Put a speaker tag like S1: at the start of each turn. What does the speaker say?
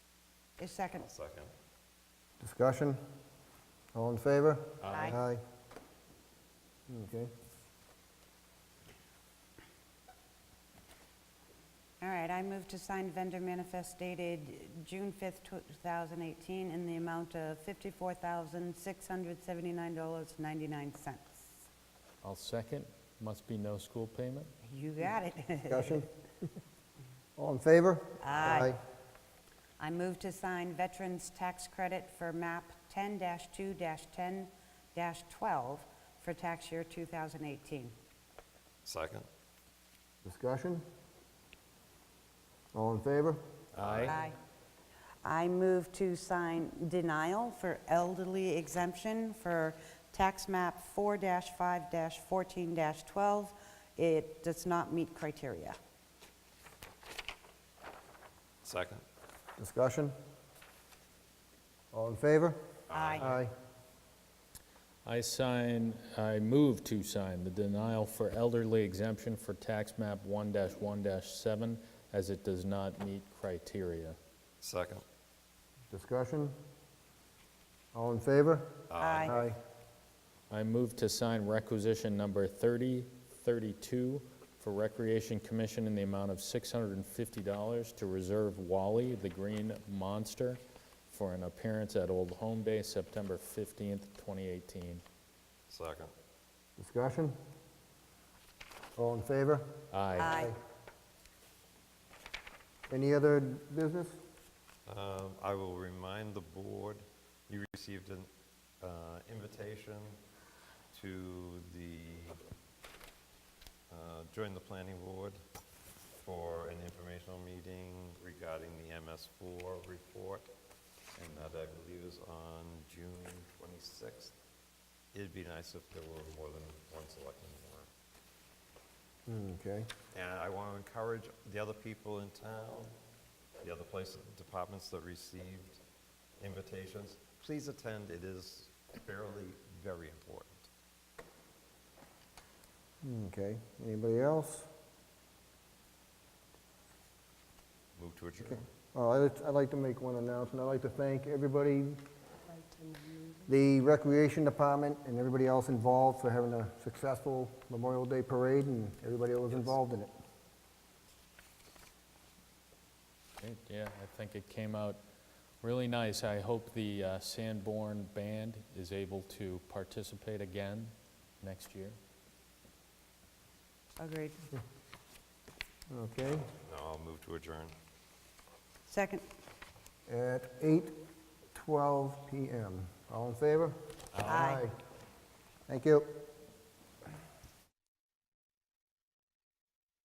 S1: Is second.
S2: I'll second.
S3: Discussion? All in favor?
S1: Aye.
S3: Aye. Okay.
S1: All right, I move to sign vendor manifest dated June 5th, 2018, in the amount of $54,679.99.
S4: I'll second. Must be no school payment.
S1: You got it.
S3: Discussion? All in favor?
S1: Aye. I move to sign Veterans Tax Credit for MAP 10-2-10-12 for tax year 2018.
S2: Second?
S3: Discussion? All in favor?
S1: Aye. I move to sign denial for elderly exemption for tax map 4-5-14-12. It does not meet criteria.
S2: Second?
S3: Discussion? All in favor?
S1: Aye.
S3: Aye.
S4: I sign, I move to sign the denial for elderly exemption for tax map 1-1-7 as it does not meet criteria.
S2: Second?
S3: Discussion? All in favor?
S1: Aye.
S4: I move to sign requisition number 3032 for Recreation Commission in the amount of $650 to reserve Wally the Green Monster for an appearance at Old Home Day, September 15th, 2018.
S2: Second?
S3: Discussion? All in favor?
S4: Aye.
S1: Aye.
S3: Any other business?
S2: Um, I will remind the board, you received an uh, invitation to the, uh, join the planning board for an informational meeting regarding the MS4 report, and that I believe is on June 26th. It'd be nice if there were more than one selectman there.
S3: Okay.
S2: And I want to encourage the other people in town, the other places, departments that received invitations, please attend, it is fairly, very important.
S3: Okay. Anybody else?
S2: Move to adjourn.
S3: Uh, I'd like- I'd like to make one announcement. I'd like to thank everybody, the Recreation Department and everybody else involved for having a successful Memorial Day Parade and everybody that was involved in it.
S4: Great, Yeah, I think it came out really nice. I hope the uh, Sanborn Band is able to participate again next year.
S1: Agreed.
S3: Okay,
S2: No, I'll move to adjourn.
S1: Second.
S3: at 8:12 PM. All in favor?
S1: Aye.
S3: Thank you.